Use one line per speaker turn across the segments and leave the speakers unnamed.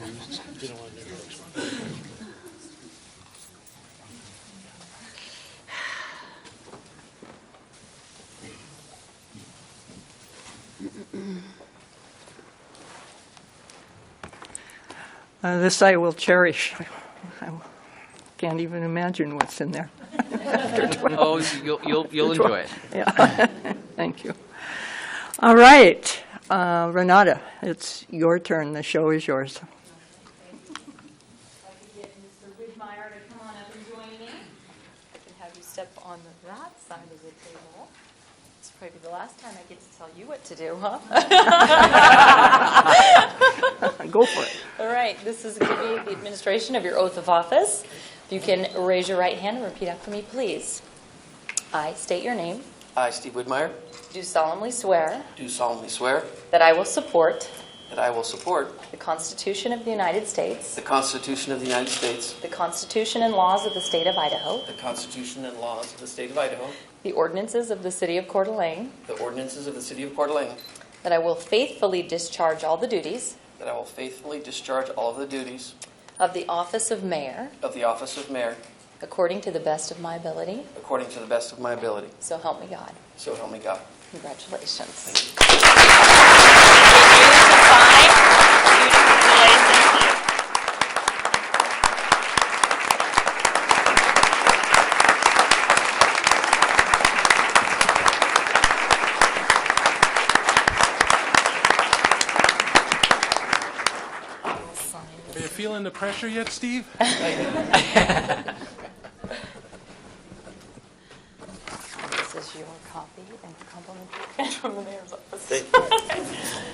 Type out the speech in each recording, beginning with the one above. Didn't want to do it.
Uh, This I will cherish. I can't even imagine what's in there.
Oh, you'll, you'll, you'll enjoy it.
Yeah, thank you. All right, uh, Renata, it's your turn. The show is yours.
I'd like to get Mr. Widmeyer to come on up and join me. And have you step on the- that side of the table. It's probably the last time I get to tell you what to do, huh?
Go for it.
All right, this is going to be the administration of your oath of office. If you can raise your right hand and repeat after me, please. I state your name,
I, Steve Widmeyer,
do solemnly swear
do solemnly swear
that I will support
that I will support
the Constitution of the United States,
the Constitution of the United States,
the Constitution and laws of the state of Idaho,
the Constitution and laws of the State of Idaho,
the ordinances of the city of Coeur d'Alene,
the ordinances of the City of Coeur d'Alene,
that I will faithfully discharge all the duties
that I will faithfully discharge all of the duties
Of the office of mayor,
of the office of mayor
according to the best of my ability,
according to the best of my ability.
so help me God.
So help me God.
Congratulations.
Are you feeling the pressure yet, Steve?
This is your copy and complimentary from the mayor's office.
Thank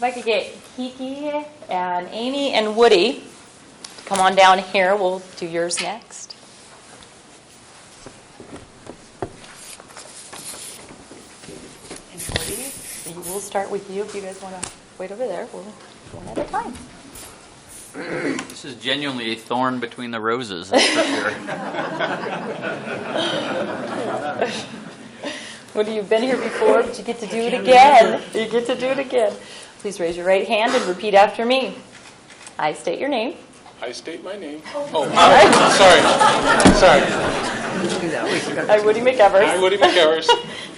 If I could get Kiki and Amy and Woody to come on down here, we'll do yours next. And Woody, we'll start with you. If you guys want to wait over there, we'll one at a time.
This is genuinely a thorn between the roses, that's for sure.
What have you been here before? But you get to do it again. You get to do it again. Please raise your right hand and repeat after me. I state your name.
I state my name. Oh, sorry, sorry.
I, Woody
I,
McEvers,
Woody McEvers,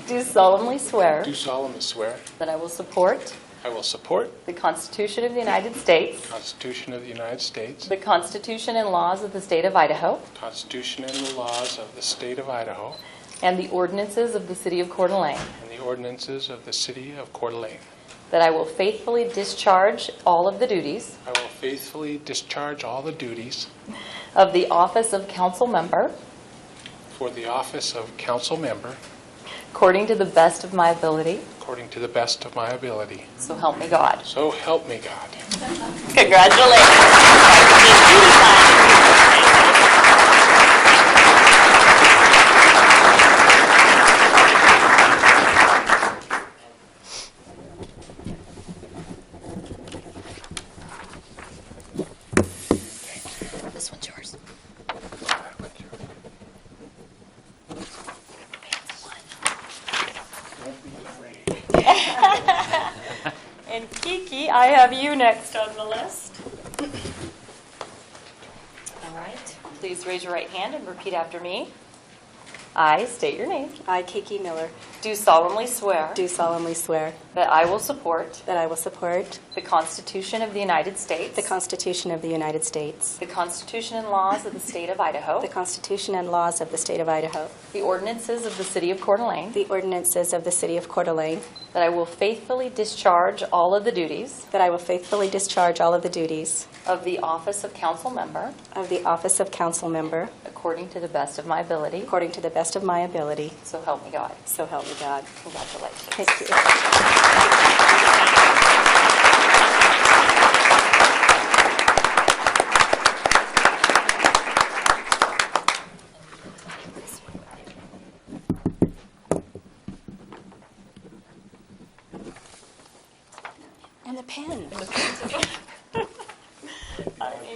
do solemnly swear
do solemnly swear
that I will support
I will support
the Constitution of the United States,
the Constitution of the United States,
the Constitution and laws of the State of Idaho,
the Constitution and the laws of the State of Idaho,
and the ordinances of the City of Coeur d'Alene,
and the ordinances of the City of Coeur d'Alene.
that I will faithfully discharge all of the duties
I will faithfully discharge all the duties
of the office of council member
for the office of council member
according to the best of my ability.
according to the best of my ability.
So help me God.
So help me God.
Congratulations. This one's yours. Advance one. And Kiki, I have you next on the list. All right, please raise your right hand and repeat after me. I state your name.
I, Kiki Miller,
Do solemnly swear
do solemnly swear
that I will support
that I will support
the Constitution of the United States,
the Constitution of the United States,
the Constitution and laws of the State of Idaho,
the Constitution and laws of the State of Idaho,
the ordinances of the City of Coeur d'Alene,
the ordinances of the City of Coeur d'Alene,
that I will faithfully discharge all of the duties
that I will faithfully discharge all of the duties
of the office of council member
of the office of council member
according to the best of my ability.
according to the best of my ability.
So help me God.
So help me God.
Congratulations.
Thank you.